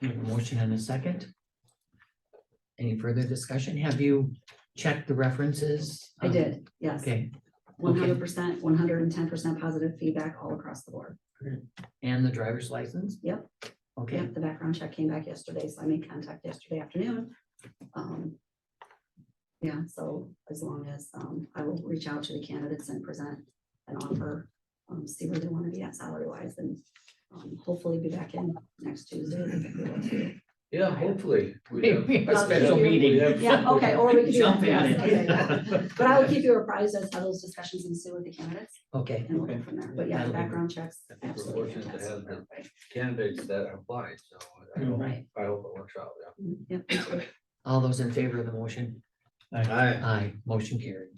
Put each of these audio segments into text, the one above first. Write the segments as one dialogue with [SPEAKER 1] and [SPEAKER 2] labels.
[SPEAKER 1] We have a Motion and a second. Any further discussion? Have you checked the references? Um,
[SPEAKER 2] I did, yes.
[SPEAKER 1] Okay,
[SPEAKER 2] One hundred percent, one hundred and ten percent positive feedback all across the board.
[SPEAKER 1] and the driver's license?
[SPEAKER 2] Yep.
[SPEAKER 1] Okay,
[SPEAKER 2] Yep, the background check came back yesterday, so I made contact yesterday afternoon. Um, Yeah, so as long as, um, I will reach out to the candidates and present an offer, um, see where they want to be at salary wise and um, hopefully be back in next Tuesday. if everyone too.
[SPEAKER 3] Yeah, hopefully. we have-
[SPEAKER 1] A
[SPEAKER 2] Yeah.
[SPEAKER 1] special
[SPEAKER 2] Yeah.
[SPEAKER 1] meeting.
[SPEAKER 2] Yeah, okay, or we can do
[SPEAKER 1] Jump
[SPEAKER 2] that.
[SPEAKER 1] at
[SPEAKER 2] Yes,
[SPEAKER 1] it.
[SPEAKER 2] But I will keep you apprised as to those discussions ensue with the candidates
[SPEAKER 1] Okay,
[SPEAKER 2] and we'll go from there. But yeah, the background checks,
[SPEAKER 3] I think we're
[SPEAKER 2] absolutely
[SPEAKER 3] fortunate to
[SPEAKER 2] fantastic.
[SPEAKER 3] have the candidates that apply, so I hope,
[SPEAKER 2] Right,
[SPEAKER 3] I hope it works out, yeah.
[SPEAKER 2] yep, absolutely.
[SPEAKER 1] all those in favor of the motion?
[SPEAKER 3] I,
[SPEAKER 1] Aye, motion carried.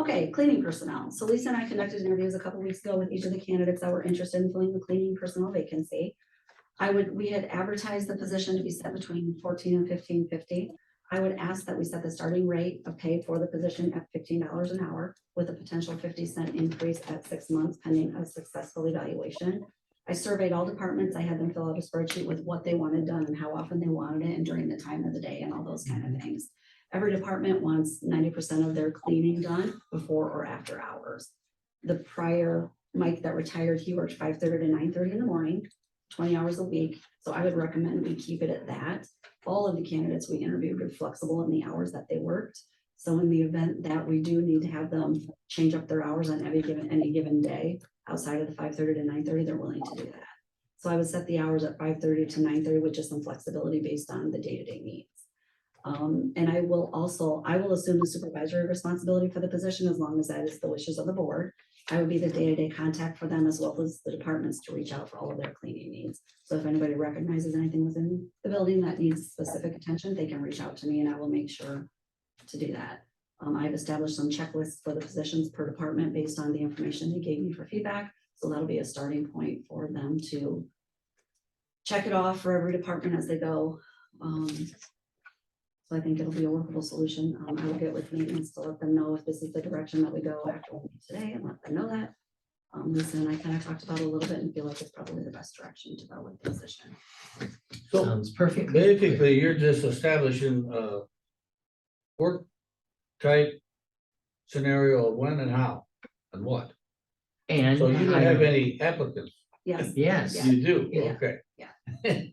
[SPEAKER 2] Okay, cleaning personnel. So Lisa and I conducted interviews a couple weeks ago with each of the candidates that were interested in filling the cleaning personnel vacancy. I would, we had advertised the position to be set between fourteen and fifteen fifty. I would ask that we set the starting rate of pay for the position at fifteen dollars an hour with a potential fifty cent increase at six months pending a successful evaluation. I surveyed all departments. I had them fill out a spreadsheet with what they wanted done and how often they wanted it and during the time of the day and all those kind of things. Every department wants ninety percent of their cleaning done before or after hours. The prior Mike that retired, he worked five thirty to nine thirty in the morning, twenty hours a week. So I would recommend we keep it at that. All of the candidates we interviewed were flexible in the hours that they worked. So in the event that we do need to have them change up their hours on any given, any given day, outside of the five thirty to nine thirty, they're willing to do that. So I would set the hours at five thirty to nine thirty with just some flexibility based on the day-to-day needs. Um, and I will also, I will assume the supervisory responsibility for the position as long as that is the wishes of the board. I would be the day-to-day contact for them as well as the departments to reach out for all of their cleaning needs. So if anybody recognizes anything within the building that needs specific attention, they can reach out to me and I will make sure to do that. Um, I've established some checklists for the positions per department based on the information they gave me for feedback. So that'll be a starting point for them to check it off for every department as they go. Um, so I think it'll be a workable solution. Um, I will get with maintenance to let them know if this is the direction that we go after we meet today and let them know that. Um, Lisa and I kind of talked about it a little bit and feel like it's probably the best direction to go with the position.
[SPEAKER 3] so
[SPEAKER 1] Sounds perfect.
[SPEAKER 3] basically, you're just establishing a work type scenario of when and how and what.
[SPEAKER 1] And.
[SPEAKER 3] So you don't have any applicants.
[SPEAKER 2] Yes,
[SPEAKER 1] Yes,
[SPEAKER 3] You do,
[SPEAKER 2] Yeah.
[SPEAKER 3] okay.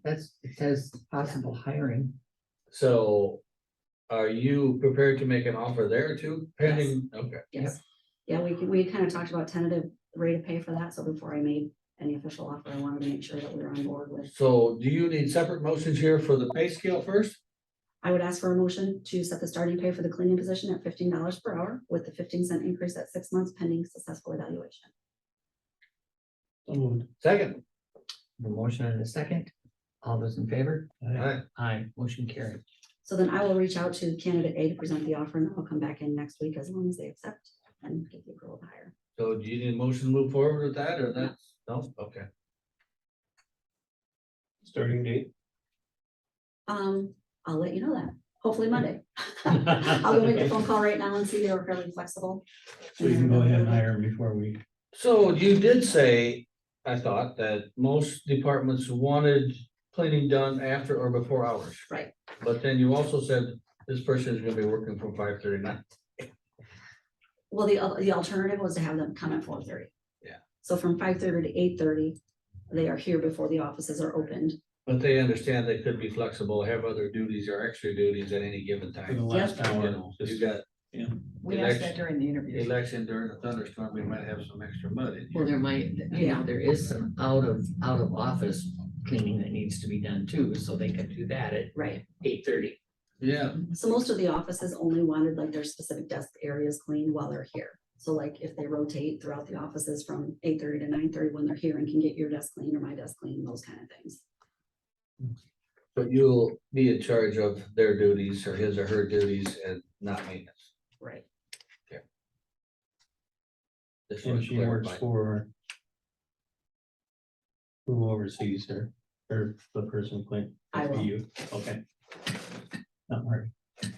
[SPEAKER 1] that's, it says possible hiring.
[SPEAKER 3] So are you prepared to make an offer there too, pending, okay?
[SPEAKER 2] yes. Yeah, we, can- we kind of talked about tentative rate of pay for that. So before I made any official offer, I wanted to make sure that we were on board with.
[SPEAKER 3] So do you need separate motions here for the pay scale first?
[SPEAKER 2] I would ask for a motion to set the starting pay for the cleaning position at fifteen dollars per hour with the fifteen cent increase at six months pending successful evaluation.
[SPEAKER 3] Second,
[SPEAKER 1] A motion and a second. All those in favor?
[SPEAKER 3] alright,
[SPEAKER 1] Aye, motion carried.
[SPEAKER 2] So then I will reach out to candidate A to present the offer and I'll come back in next week as long as they accept and get the approval to hire.
[SPEAKER 3] so do you need a motion to move forward with that or that's, no, okay.
[SPEAKER 4] Starting date?
[SPEAKER 2] Um, I'll let you know that, hopefully Monday. I'll go make a phone call right now and see if they were fairly flexible.
[SPEAKER 4] So you can
[SPEAKER 2] Mm-hmm.
[SPEAKER 4] go ahead and hire him before we,
[SPEAKER 3] So you did say, I thought, that most departments wanted cleaning done after or before hours.
[SPEAKER 2] Right.
[SPEAKER 3] But then you also said this person is gonna be working from five thirty nine.
[SPEAKER 2] Well, the, al- the alternative was to have them come at four thirty.
[SPEAKER 3] Yeah.
[SPEAKER 2] So from five thirty to eight thirty, they are here before the offices are opened.
[SPEAKER 3] But they understand they could be flexible, have other duties or extra duties at any given
[SPEAKER 4] for the
[SPEAKER 3] time.
[SPEAKER 4] last
[SPEAKER 3] You
[SPEAKER 4] hour,
[SPEAKER 3] know, You
[SPEAKER 4] just-
[SPEAKER 3] got
[SPEAKER 5] We asked
[SPEAKER 3] Election-
[SPEAKER 5] that during the interview.
[SPEAKER 3] election during a thunderstorm, we might have some extra mud in
[SPEAKER 1] Well,
[SPEAKER 3] here.
[SPEAKER 1] there might, you know, there is some out of, out of office cleaning that needs to be done too, so they can do that at
[SPEAKER 2] Right.
[SPEAKER 1] eight thirty.
[SPEAKER 3] Yeah,
[SPEAKER 2] So most of the offices only wanted like their specific desk areas cleaned while they're here. So like if they rotate throughout the offices from eight thirty to nine thirty when they're here and can get your desk cleaned or my desk cleaned, those kind of things.
[SPEAKER 3] but you'll be in charge of their duties or his or her duties and not maintenance.
[SPEAKER 2] Right.
[SPEAKER 3] This
[SPEAKER 4] and
[SPEAKER 3] was
[SPEAKER 4] she works
[SPEAKER 3] clarified.
[SPEAKER 4] for who oversees her, or the person playing.
[SPEAKER 2] I will.
[SPEAKER 4] You, okay. Not worry,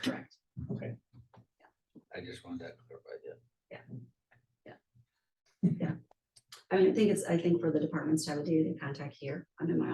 [SPEAKER 2] Correct.
[SPEAKER 4] okay.
[SPEAKER 3] I just wanted that clarified, yeah.
[SPEAKER 2] I mean, I think it's, I think for the departments to have a day-to-day contact here, I'm in my office